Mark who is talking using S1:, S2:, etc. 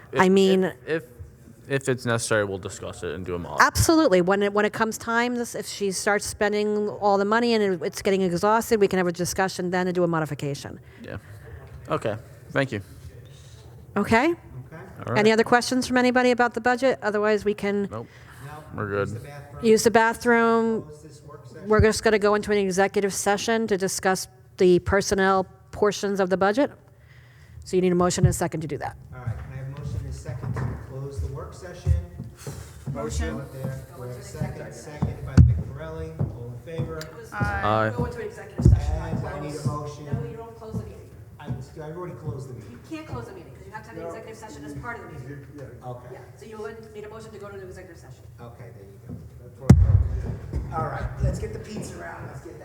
S1: I mean,
S2: If, if it's necessary, we'll discuss it and do a mod.
S1: absolutely. When it, when it comes time, this, if she starts spending all the money and it's getting exhausted, we can have a discussion then and do a modification.
S2: Yeah. Okay, thank you.
S1: Okay?
S2: All
S1: Any
S2: right,
S1: other questions from anybody about the budget? Otherwise, we can
S2: nope, we're good.
S1: use the bathroom. We're just going to go into an executive session to discuss the personnel portions of the budget. So you need a motion and a second to do that.
S3: All right, can I have a motion and a second to close the work session? Motion. out there. We have a second, second by Piccarelli, all in favor?
S2: Aye.
S4: Uh, Go into executive session, not
S3: And I need
S4: close.
S3: a motion.
S4: No, you don't close the meeting.
S3: I, I already closed the meeting.
S4: You can't close the meeting, because you have to have an executive session as part of the meeting.
S3: Okay,
S4: Yeah, so you would need a motion to go to the executive session.
S3: okay, there you go. All right, let's get the pizza out, let's get that.